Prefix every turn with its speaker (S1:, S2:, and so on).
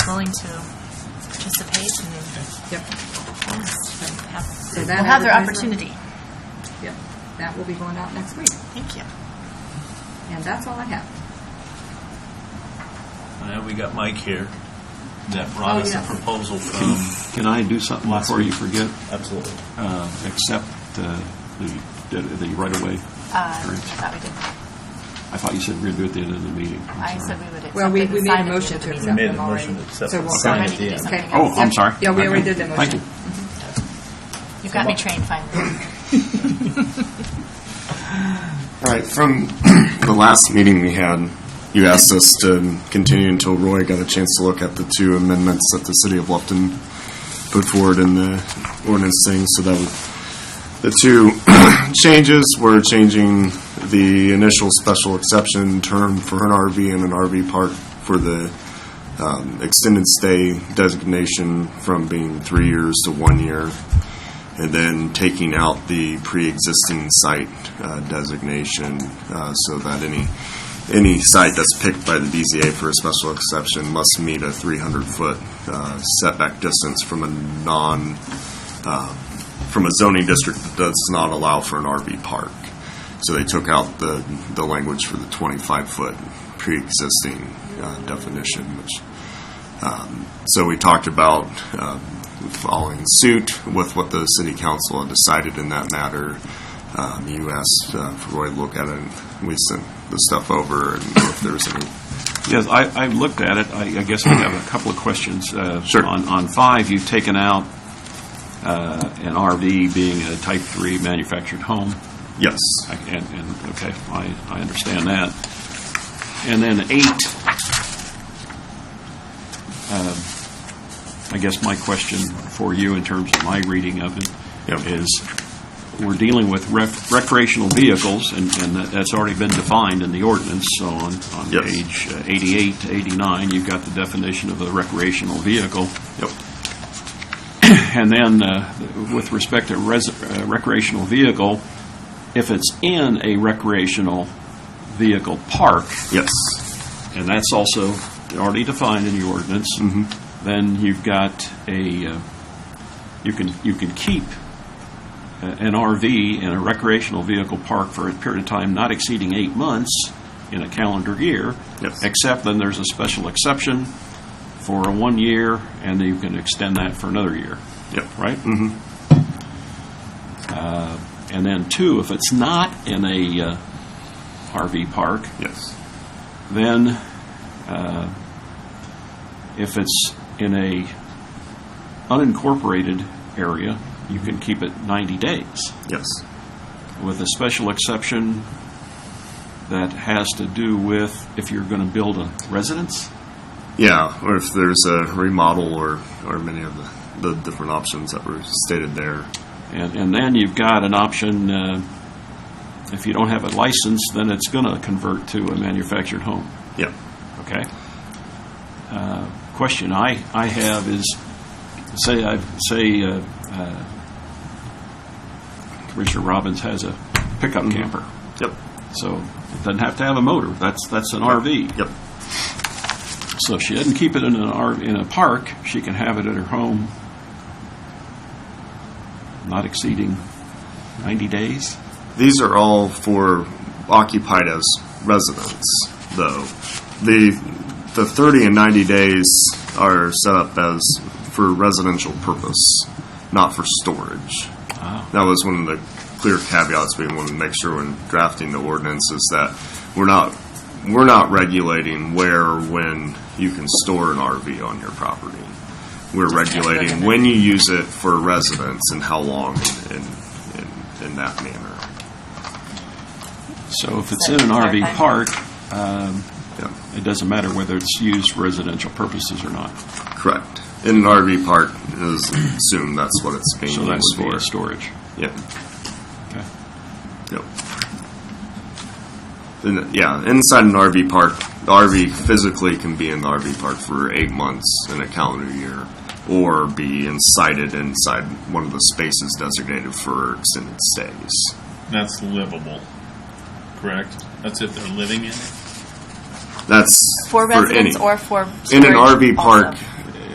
S1: willing to participate and
S2: Yep,
S1: have,
S2: So
S1: will
S2: that
S1: have their
S2: advertisement-
S1: opportunity.
S2: yep. That will be going out next week.
S1: Thank you.
S2: And that's all I have.
S3: Now Uh, we got Mike here that brought us a
S2: yes.
S3: proposal from.
S4: Can I do something
S3: Last
S4: before you
S3: week.
S4: forget?
S3: Absolutely.
S4: Uh, Accept uh, the, the right-of-way.
S1: Uh,
S4: Great.
S1: That we did.
S4: I thought you said we were going to do it at the end of the meeting. I'm
S1: I
S4: sorry.
S1: said we would accept.
S2: Well, we,
S1: it and
S2: we made
S1: sign
S2: a
S1: it at
S2: motion
S1: the
S2: to
S1: meeting.
S2: accept
S3: made a
S2: them already.
S3: motion to accept
S2: So
S3: it.
S2: we'll-
S3: Sign
S1: it at the end.
S2: Okay.
S4: Oh, I'm
S2: Yep.
S4: sorry.
S2: Yeah, we
S4: Okay.
S2: already did the
S4: Thank
S2: motion.
S4: you.
S1: You've got me trained finally.
S5: All right, from the last meeting we had, you asked us to continue until Roy got a chance to look at the two amendments that the city of Bluffton put forward in the ordinance thing, so that would, the two changes were changing the initial special exception term for an RV and an RV park for the um, extended stay designation from being three years to one year and then taking out the pre-existing site uh, designation uh, so that any, any site that's picked by the DZA for a special exception must meet a 300-foot uh, setback distance from a non, uh, from a zoning district that does not allow for an RV park. So they took out the, the language for the 25-foot pre-existing uh, definition, which so we talked about um, following suit with what the city council had decided in that matter. Um, You asked uh, for Roy to look at it, and we sent the stuff over, and if there's any,
S4: Yes, I, I looked at it. I, I guess I have a couple of questions. Uh,
S5: Sure.
S4: On, on five, you've taken out uh, an RV being a type three manufactured home.
S5: yes.
S4: I- And, and, okay, I, I understand that. And then eight, um, I guess my question for you in terms of my reading of it
S5: Yep.
S4: is, we're dealing with rec- recreational vehicles, and, and that- that's already been defined in the ordinance, so on, on
S5: Yes.
S4: page uh, 88 to 89, you've got the definition of a recreational vehicle.
S5: Yep.
S4: And then, uh, with respect to res- uh, recreational vehicle, if it's in a recreational vehicle park,
S5: Yes.
S4: and that's also already defined in your ordinance, then you've got a, uh, you can, you can keep a- an RV in a recreational vehicle park for a period of time not exceeding eight months in a calendar year.
S5: Yes.
S4: Except then there's a special exception for a one year, and then you can extend that for another year
S5: Yep.
S4: right? Mm-hmm. And then, two, if it's not in a uh, RV park,
S5: Yes.
S4: then uh, if it's in a unincorporated area, you can keep it 90 days,
S5: Yes.
S4: with a special exception that has to do with if you're going to build a residence?
S5: Yeah, or if there's a remodel or, or many of the, the different options that were stated there.
S4: And, and then you've got an option, uh, if you don't have a license, then it's going to convert to a manufactured home,
S5: Yep.
S4: okay? Uh, Question I, I have is, say, I, say, uh, uh, Commissioner Robbins has a pickup
S5: Mm-hmm.
S4: camper,
S5: Yep.
S4: so it doesn't have to have a motor, that's, that's an RV.
S5: Yep.
S4: So if she doesn't keep it in an RV, in a park, she can have it at her home, not exceeding 90 days?
S5: These are all for occupied as residents, though. The, the 30 and 90 days are set up as for residential purpose, not for storage. That was one of the clear caveats we wanted to make sure when drafting the ordinance is that we're not, we're not regulating where or when you can store an RV on your property. We're regulating when you use it for residence and how long in, in, in that manner.
S4: So if it's in an RV park, um,
S5: Yeah.
S4: it doesn't matter whether it's used for residential purposes or not.
S5: Correct. In an RV park, is assume that's what it's being
S4: So that
S5: used
S4: would be
S5: for.
S4: a storage.
S5: Yeah,
S4: Okay.
S5: yep. And, yeah, inside an RV park, the RV physically can be in the RV park for eight months in a calendar year, or be incited inside one of the spaces designated for extended stays.
S3: That's livable, correct? That's if they're living in it?
S5: That's
S6: For residents
S5: any-
S6: or for storage?
S5: in an RV park
S6: also.